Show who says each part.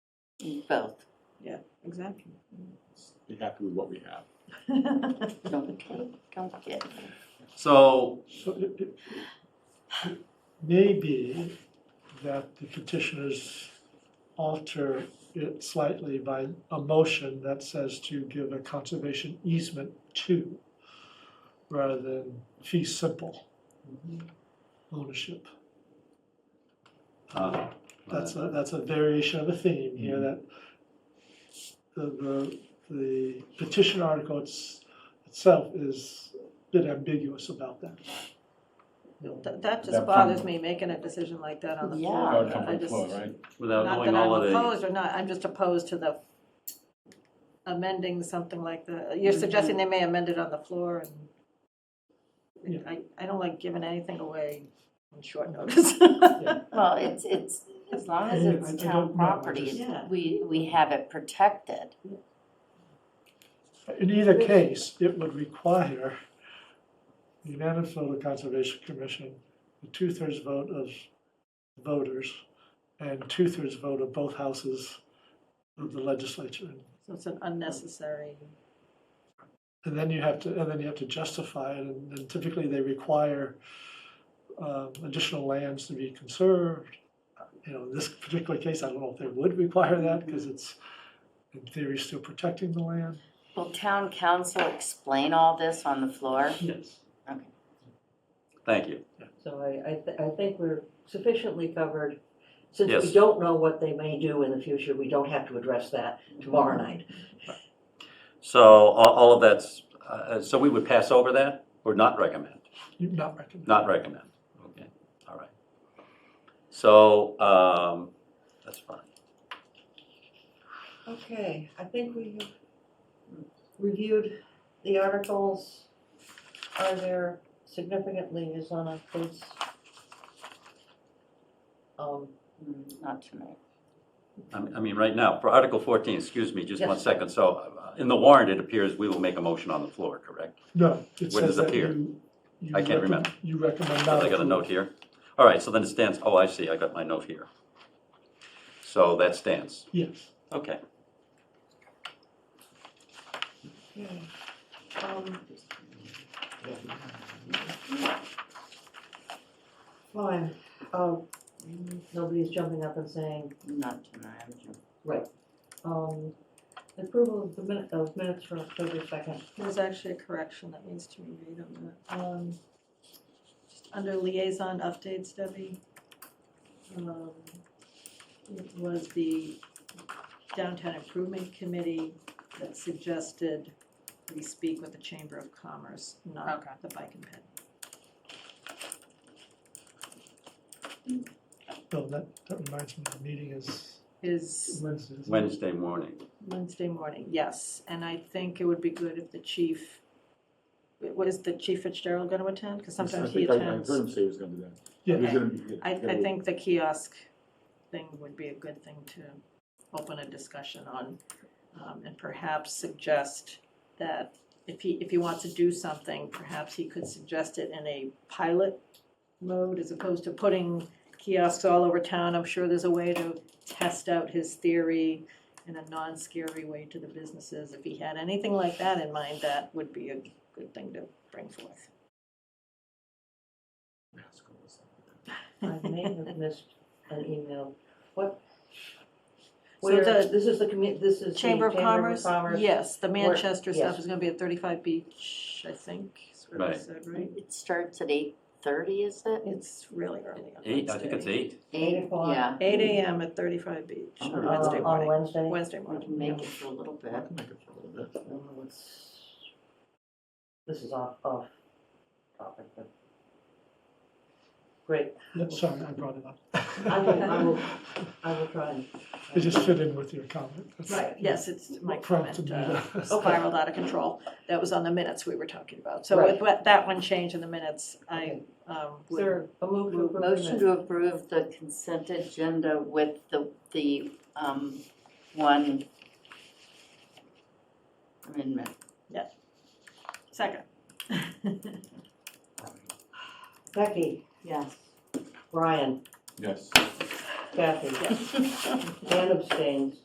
Speaker 1: both,
Speaker 2: Exactly.
Speaker 3: be happy with what we have.
Speaker 1: don't kid, don't kid.
Speaker 4: So,
Speaker 5: So it, it it may be that the petitioners alter it slightly by a motion that says to give a conservation easement to, rather than fee simple ownership.
Speaker 4: uh,
Speaker 5: That's a, that's a variation of a theme here that the, the, the petition article it's- itself is a bit ambiguous about that.
Speaker 2: That, that
Speaker 3: That
Speaker 2: just
Speaker 3: from-
Speaker 2: bothers me, making a decision like that on the
Speaker 1: Yeah.
Speaker 2: floor.
Speaker 3: That would come
Speaker 2: I
Speaker 3: from
Speaker 2: just-
Speaker 3: Chloe, right?
Speaker 4: without
Speaker 2: Not
Speaker 4: knowing
Speaker 2: that
Speaker 4: all of
Speaker 2: I'm
Speaker 4: the,
Speaker 2: opposed or not, I'm just opposed to the amending something like the, you're suggesting they may amend it on the floor and I, I don't like giving anything away on short notice.
Speaker 1: Well, it's, it's, as long as
Speaker 5: Yeah, I- I
Speaker 1: it's
Speaker 5: don't
Speaker 1: town
Speaker 5: know, I
Speaker 1: property,
Speaker 5: just-
Speaker 1: it's- we, we have it protected.
Speaker 5: In either case, it would require the Manitoba Conservation Commission, a two-thirds vote of voters, and two-thirds vote of both houses of the legislature.
Speaker 2: So it's an unnecessary,
Speaker 5: And then you have to, and then you have to justify it, and and typically they require um, additional lands to be conserved. You know, in this particular case, I don't know if they would require that, because it's, in theory, still protecting the land.
Speaker 1: Will town council explain all this on the floor?
Speaker 6: Hmm.
Speaker 5: Yes.
Speaker 4: thank you.
Speaker 6: So I, I, th- I think we're sufficiently covered. Since
Speaker 4: Yes.
Speaker 6: we don't know what they may do in the future, we don't have to address that tomorrow night.
Speaker 4: So all, all of that's, uh, so we would pass over that or not recommend?
Speaker 5: Not recommended.
Speaker 4: Not recommend, okay, all right. So, um, that's fine.
Speaker 6: Okay, I think we have reviewed the articles. Are there significant liaison updates? Um,
Speaker 1: Mm, Not tonight.
Speaker 4: I mean- I mean, right now, for Article 14, excuse me, just one
Speaker 6: Yes.
Speaker 4: second. So uh, in the warrant, it appears we will make a motion on the floor, correct?
Speaker 5: No, it
Speaker 4: When does
Speaker 5: says
Speaker 4: it
Speaker 5: that
Speaker 4: appear?
Speaker 5: you. you
Speaker 4: I can't
Speaker 5: recom-
Speaker 4: remember.
Speaker 5: You recommend not.
Speaker 4: I got a
Speaker 5: approve.
Speaker 4: note here. All right, so then it stands, oh, I see, I got my note here. So that stands,
Speaker 5: Yes.
Speaker 4: okay.
Speaker 6: um, Fine, um, nobody's jumping up and saying,
Speaker 1: Not tonight, I'm just-
Speaker 6: Um, approval of the minute, of minutes for October second.
Speaker 2: there's actually a correction that needs to be made on that.
Speaker 6: Um,
Speaker 2: Just under liaison updates, Debbie, um, it was the Downtown Improvement Committee that suggested we speak with the Chamber of Commerce, not the Bike and Ped.
Speaker 5: Bill, that, that reminds me, the meeting is
Speaker 2: Is
Speaker 5: Wednesday. isn't it?
Speaker 4: Wednesday morning.
Speaker 2: Wednesday morning, yes, and I think it would be good if the chief, was the Chief Fitzgerald gonna attend? Because sometimes he
Speaker 3: I think I- I
Speaker 2: attends.
Speaker 3: heard him say he was gonna do that. He was
Speaker 5: Yeah,
Speaker 3: gonna be-
Speaker 2: I,
Speaker 3: gonna
Speaker 2: I
Speaker 3: be-
Speaker 2: think the kiosk thing would be a good thing to open a discussion on. um, And perhaps suggest that if he, if he wants to do something, perhaps he could suggest it in a pilot mode as opposed to putting kiosks all over town. I'm sure there's a way to test out his theory in a non-scary way to the businesses. If he had anything like that in mind, that would be a good thing to bring forth.
Speaker 6: I may have missed an email. What?
Speaker 2: So
Speaker 6: Where,
Speaker 2: the-
Speaker 6: this is the commu, this is the
Speaker 2: Chamber of Commerce, yes, the
Speaker 6: Where-
Speaker 2: Manchester stuff
Speaker 6: yes.
Speaker 2: is gonna be at thirty-five Beach, I think, is what I
Speaker 4: Right.
Speaker 2: said, right?
Speaker 1: It starts at eight thirty, is it?
Speaker 2: It's really early on
Speaker 4: Eight, I think it's
Speaker 2: Wednesday.
Speaker 4: eight.
Speaker 6: Eight o'clock.
Speaker 1: Yeah,
Speaker 2: Eight AM at thirty-five Beach
Speaker 3: Oh,
Speaker 2: on
Speaker 3: uh,
Speaker 2: Wednesday
Speaker 6: Uh, On
Speaker 2: morning,
Speaker 6: Wednesday?
Speaker 2: Wednesday
Speaker 1: we
Speaker 2: morning.
Speaker 1: can make it for a little
Speaker 3: I
Speaker 1: bit.
Speaker 3: can make it for a little bit.
Speaker 6: Uh, let's- This is off, off topic, but. Great,
Speaker 5: No, sorry, I brought it up.
Speaker 6: I will, I will, I will try and. uh,
Speaker 5: It just fit in with your comment. That's-
Speaker 6: Right,
Speaker 2: Yes, it's my
Speaker 5: What prompted
Speaker 2: comment,
Speaker 5: me
Speaker 2: uh,
Speaker 5: to-
Speaker 2: spiraled out of control, that was on the minutes we were talking about. So
Speaker 6: Right.
Speaker 2: with that- that one change in the minutes, I,
Speaker 6: Okay.
Speaker 2: um,
Speaker 6: Is
Speaker 2: would,
Speaker 6: there a move to approve? the
Speaker 1: Motion
Speaker 6: minutes?
Speaker 1: to approve the consent agenda with the, the, um, one amendment.
Speaker 2: second.
Speaker 6: Becky,
Speaker 1: Yes.
Speaker 6: Brian,
Speaker 3: Yes.
Speaker 6: Kathy, Dan abstains.